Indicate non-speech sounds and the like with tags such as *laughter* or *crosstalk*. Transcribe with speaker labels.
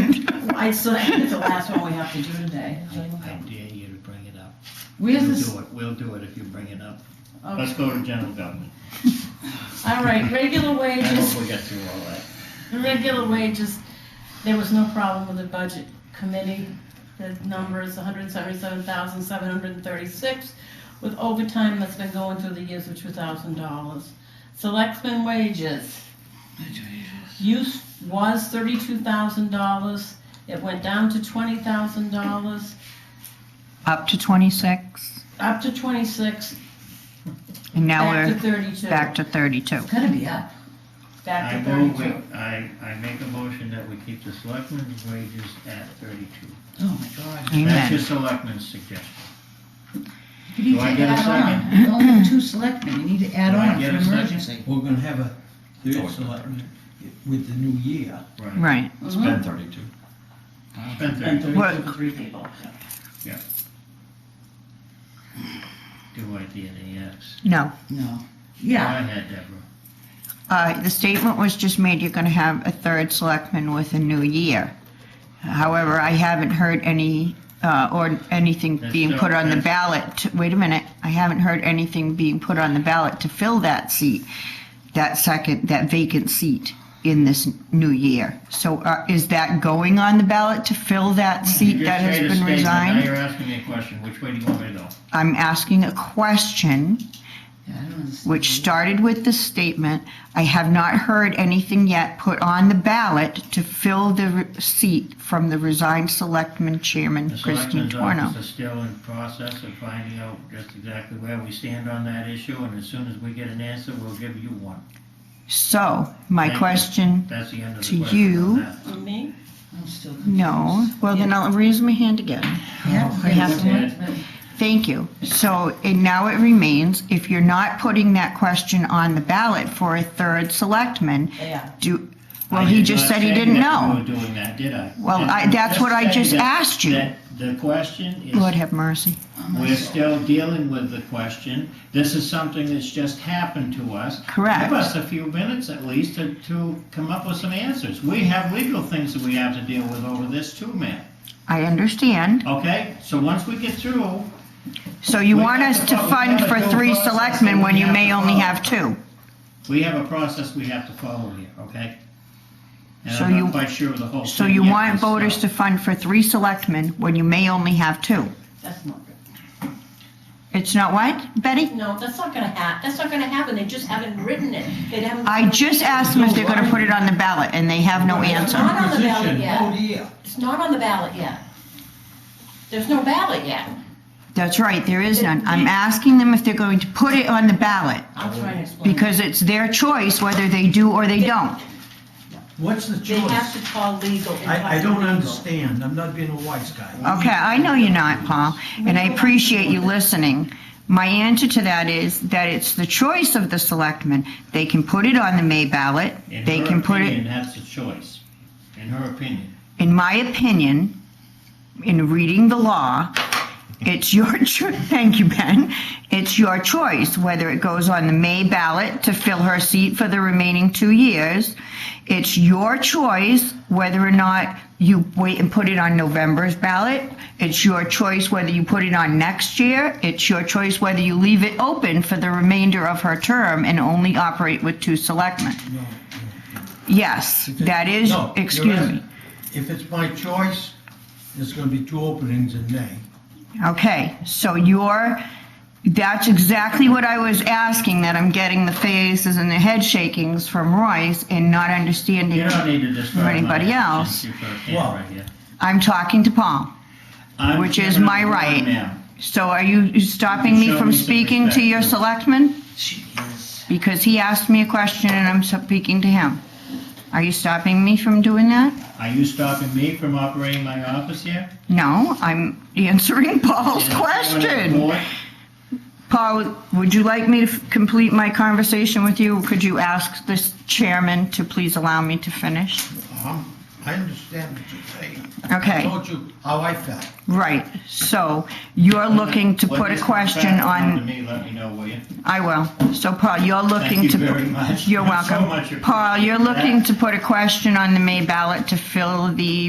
Speaker 1: I still think it's the last one we have to do today.
Speaker 2: I I dare you to bring it up.
Speaker 1: Where's
Speaker 2: We'll
Speaker 1: this?
Speaker 2: do it, we'll do it if you bring it up.
Speaker 1: oh,
Speaker 3: Let's go to general government.
Speaker 2: *laughs*
Speaker 1: All right, regular
Speaker 3: I
Speaker 1: wages,
Speaker 3: hope we get through all that.
Speaker 1: the regular wages, there was no problem with the budget committee. The number is hundred and seventy-seven thousand, seven hundred and thirty-six, with overtime that's been going through the years of two thousand dollars. Selectmen wages. Use was thirty-two thousand dollars, it went down to twenty thousand dollars.
Speaker 4: *laughs* Up to 26,
Speaker 1: up to 26,
Speaker 4: and now
Speaker 1: back to
Speaker 4: we're
Speaker 1: 32.
Speaker 4: back to 32.
Speaker 1: It's gonna be up.
Speaker 3: I
Speaker 1: Back to
Speaker 3: move,
Speaker 1: 32.
Speaker 3: we- I, I make a motion that we keep the selectmen's wages at thirty-two.
Speaker 1: Oh, my God.
Speaker 3: That's your
Speaker 4: Amen.
Speaker 3: selectmen's suggestion.
Speaker 5: You need
Speaker 3: Do
Speaker 5: to
Speaker 3: I get a
Speaker 5: add on.
Speaker 3: second?
Speaker 5: You only have two selectmen, you need to add
Speaker 3: Do I
Speaker 5: on for
Speaker 3: get a
Speaker 5: emergency.
Speaker 6: We're gonna have
Speaker 7: Oh,
Speaker 6: a third
Speaker 7: it's
Speaker 6: selectman with the new year.
Speaker 4: Right.
Speaker 7: It's been thirty-two.
Speaker 3: Spend
Speaker 1: And
Speaker 3: thirty,
Speaker 1: 32 for three people.
Speaker 3: do I get a yes?
Speaker 4: No.
Speaker 5: No.
Speaker 3: Go
Speaker 5: Yeah,
Speaker 3: ahead, Deborah.
Speaker 4: Uh, The statement was just made, you're going to have a third selectman with a new year. However, I haven't heard any, uh, or anything
Speaker 3: That's
Speaker 4: being
Speaker 3: no-
Speaker 4: put on the
Speaker 3: that's-
Speaker 4: ballot. to- Wait a minute, I haven't heard anything being put on the ballot to fill that seat, that second, that vacant seat in this new year. So uh, is that going on the ballot to fill that
Speaker 3: You
Speaker 4: seat
Speaker 3: just
Speaker 4: that
Speaker 3: made a
Speaker 4: has been
Speaker 3: statement,
Speaker 4: resigned?
Speaker 3: Now you're asking me a question, which way do you want me to go?
Speaker 4: I'm asking a question
Speaker 5: Yeah, I don't understand.
Speaker 4: which started with the statement, I have not heard anything yet put on the ballot to fill the re- seat from the resigned selectman chairman
Speaker 3: The
Speaker 4: Christine
Speaker 3: selectmen's
Speaker 4: Torno.
Speaker 3: office is still in process of finding out just exactly where we stand on that issue, and as soon as we get an answer, we'll give you one.
Speaker 4: So, my
Speaker 3: Thank you.
Speaker 4: question,
Speaker 3: That's the end of
Speaker 4: To
Speaker 3: the question on
Speaker 4: you.
Speaker 3: that.
Speaker 1: For me?
Speaker 5: I'm still confused.
Speaker 4: no, well then I'll raise my hand again.
Speaker 5: Yeah,
Speaker 4: I have to-
Speaker 5: selectmen.
Speaker 4: Thank you. So, and now it remains, if you're not putting that question on the ballot for a third selectman,
Speaker 1: Yeah.
Speaker 4: do, well,
Speaker 3: I
Speaker 4: he
Speaker 3: did
Speaker 4: just
Speaker 3: not
Speaker 4: said he
Speaker 3: say
Speaker 4: didn't
Speaker 3: that
Speaker 4: know.
Speaker 3: You were doing that, did I?
Speaker 4: Well,
Speaker 3: And
Speaker 4: I- that's what I
Speaker 3: say
Speaker 4: just
Speaker 3: that-
Speaker 4: asked you.
Speaker 3: that The question is
Speaker 4: Lord have mercy.
Speaker 3: We're still dealing with the question. This is something that's just happened to us.
Speaker 4: Correct.
Speaker 3: Give us a few minutes at least to, to come up with some answers. We have legal things that we have to deal with over this too, man.
Speaker 4: I understand.
Speaker 3: Okay? So once we get through,
Speaker 4: So you
Speaker 3: We
Speaker 4: want
Speaker 3: have
Speaker 4: us
Speaker 3: to
Speaker 4: to
Speaker 3: vote.
Speaker 4: fund
Speaker 3: We
Speaker 4: for
Speaker 3: have to
Speaker 4: three
Speaker 3: vote.
Speaker 4: selectmen when you
Speaker 3: We
Speaker 4: may
Speaker 3: have to
Speaker 4: only
Speaker 3: vote.
Speaker 4: have two?
Speaker 3: we have a process we have to follow here, okay? And
Speaker 4: So
Speaker 3: I'm
Speaker 4: you-
Speaker 3: not quite sure of the whole thing.
Speaker 4: So you
Speaker 3: yet
Speaker 4: want
Speaker 3: myself.
Speaker 4: voters to fund for three selectmen when you may only have two?
Speaker 1: That's not good.
Speaker 4: It's not what, Betty?
Speaker 1: No, that's not gonna hap, that's not gonna happen. They just haven't written it. They haven't.
Speaker 4: I just asked them if they're gonna put it on the ballot, and they have no
Speaker 1: It's
Speaker 4: answer.
Speaker 1: not on the ballot
Speaker 6: Position,
Speaker 1: yet.
Speaker 6: Oh, yeah.
Speaker 1: It's not on the ballot yet. There's no ballot yet.
Speaker 4: That's right, there is none. I'm asking them if they're going to put it on the ballot,
Speaker 1: I'll try and explain.
Speaker 4: because it's their choice whether they do or they don't.
Speaker 6: What's the
Speaker 1: They have
Speaker 6: choice?
Speaker 1: to call legal. and talk
Speaker 6: I, I
Speaker 1: to
Speaker 6: don't
Speaker 1: legal.
Speaker 6: understand. I'm not being a wise guy.
Speaker 4: Okay, I know you're not, Paul, and I appreciate you listening. My answer to that is that it's the choice of the selectmen. They can put it on the May ballot,
Speaker 3: In
Speaker 4: they
Speaker 3: her
Speaker 4: can put it.
Speaker 3: opinion, That's a choice, in her opinion.
Speaker 4: in my opinion, in reading the law, it's your *laughs* cho- thank you, Ben. It's your choice whether it goes on the May ballot to fill her seat for the remaining two years. It's your choice whether or not you wait and put it on November's ballot. It's your choice whether you put it on next year. It's your choice whether you leave it open for the remainder of her term and only operate with two selectmen.
Speaker 6: No, no.
Speaker 4: Yes, that is,
Speaker 6: No, you're
Speaker 4: excuse me.
Speaker 6: asking- If it's my choice, there's gonna be two openings in May.
Speaker 4: Okay, so you're, that's exactly what I was asking, that I'm getting the faces and the head shakings from Royce and not understanding.
Speaker 3: You don't need to describe
Speaker 4: Or anybody
Speaker 3: my
Speaker 4: else.
Speaker 3: since you put a camera
Speaker 6: Well,
Speaker 3: right here.
Speaker 4: I'm talking to Paul.
Speaker 3: I'm
Speaker 4: which is
Speaker 3: giving
Speaker 4: my
Speaker 3: it to her
Speaker 4: right.
Speaker 3: now.
Speaker 4: So are you stopping
Speaker 3: You
Speaker 4: me
Speaker 3: can show
Speaker 4: from
Speaker 3: me some
Speaker 4: speaking to
Speaker 3: respect,
Speaker 4: your
Speaker 3: please.
Speaker 4: selectman?
Speaker 5: She is.
Speaker 4: Because he asked me a question and I'm speaking to him. Are you stopping me from doing that?
Speaker 3: Are you stopping me from operating my office here?
Speaker 4: No, I'm answering *laughs* Paul's
Speaker 3: Is there anyone on
Speaker 4: question.
Speaker 3: the board?
Speaker 4: Paul, would you like me to f- complete my conversation with you? Could you ask this chairman to please allow me to finish?
Speaker 6: Um, I understand what you're saying. I
Speaker 4: Okay,
Speaker 6: told you how I felt.
Speaker 4: right. So you're looking to
Speaker 3: When
Speaker 4: put a
Speaker 3: this comes
Speaker 4: question
Speaker 3: back, come up to
Speaker 4: on,
Speaker 3: me, let me know, will you?
Speaker 4: I will. So Paul, you're
Speaker 3: Thank
Speaker 4: looking
Speaker 3: you
Speaker 4: to.
Speaker 3: very much.
Speaker 4: You're
Speaker 3: So
Speaker 4: welcome.
Speaker 3: much appreciated.
Speaker 4: Paul, you're looking to put a question on the May ballot to fill the